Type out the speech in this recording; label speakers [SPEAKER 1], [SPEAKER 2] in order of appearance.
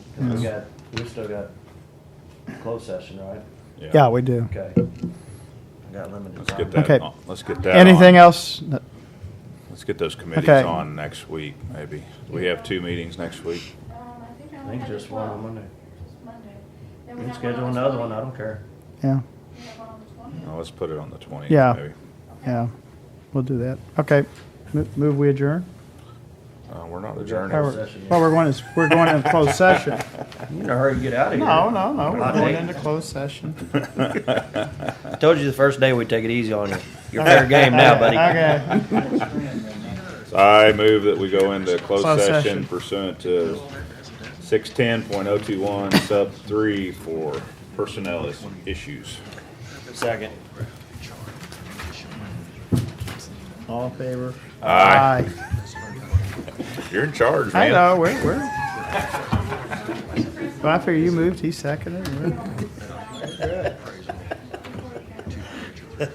[SPEAKER 1] 'Cause we
[SPEAKER 2] Yeah.
[SPEAKER 1] got, we still got closed session, right?
[SPEAKER 2] Yeah, we do.
[SPEAKER 1] Okay. I got limited.
[SPEAKER 3] Let's
[SPEAKER 1] time.
[SPEAKER 3] get that,
[SPEAKER 2] Okay.
[SPEAKER 3] on- let's get that.
[SPEAKER 2] Anything
[SPEAKER 3] on.
[SPEAKER 2] else? No.
[SPEAKER 3] Let's get those committees
[SPEAKER 2] Okay.
[SPEAKER 3] on next week, maybe. We have two meetings next week.
[SPEAKER 4] Um, I think I
[SPEAKER 1] I
[SPEAKER 4] only
[SPEAKER 1] think
[SPEAKER 4] had the
[SPEAKER 1] just one on
[SPEAKER 4] 12th.
[SPEAKER 1] Monday.
[SPEAKER 4] Just Monday.
[SPEAKER 1] We
[SPEAKER 4] Then we
[SPEAKER 1] can
[SPEAKER 4] have one
[SPEAKER 1] schedule
[SPEAKER 4] on the
[SPEAKER 1] another one, I don't
[SPEAKER 4] 20th.
[SPEAKER 1] care.
[SPEAKER 2] Yeah,
[SPEAKER 4] We have one on the 20th.
[SPEAKER 3] Now, let's put it on the twentieth,
[SPEAKER 2] Yeah.
[SPEAKER 3] maybe.
[SPEAKER 2] yeah, we'll do that. Okay, Mo- move we adjourn?
[SPEAKER 3] Uh, we're not
[SPEAKER 1] We got
[SPEAKER 3] adjourned.
[SPEAKER 1] Closed
[SPEAKER 2] Well,
[SPEAKER 3] We're
[SPEAKER 2] we're
[SPEAKER 1] session, yeah.
[SPEAKER 2] well, we're going to, we're going into closed session.
[SPEAKER 1] You in a hurry to get out of here.
[SPEAKER 2] No, no, no, we're
[SPEAKER 1] I
[SPEAKER 2] going
[SPEAKER 1] think-
[SPEAKER 2] into closed session.
[SPEAKER 1] I told you the first day we'd take it easy on you. You're fair game now, buddy.
[SPEAKER 2] Okay,
[SPEAKER 3] I move that we go into closed
[SPEAKER 2] Closed
[SPEAKER 3] session
[SPEAKER 2] session.
[SPEAKER 3] pursuant to six ten point oh two one sub three for personnel is- issues.
[SPEAKER 1] Second.
[SPEAKER 2] all in favor?
[SPEAKER 3] Aye. You're in charge,
[SPEAKER 2] I
[SPEAKER 3] man.
[SPEAKER 2] know, we're, we're. Well, I figure you moved, he seconded. we're-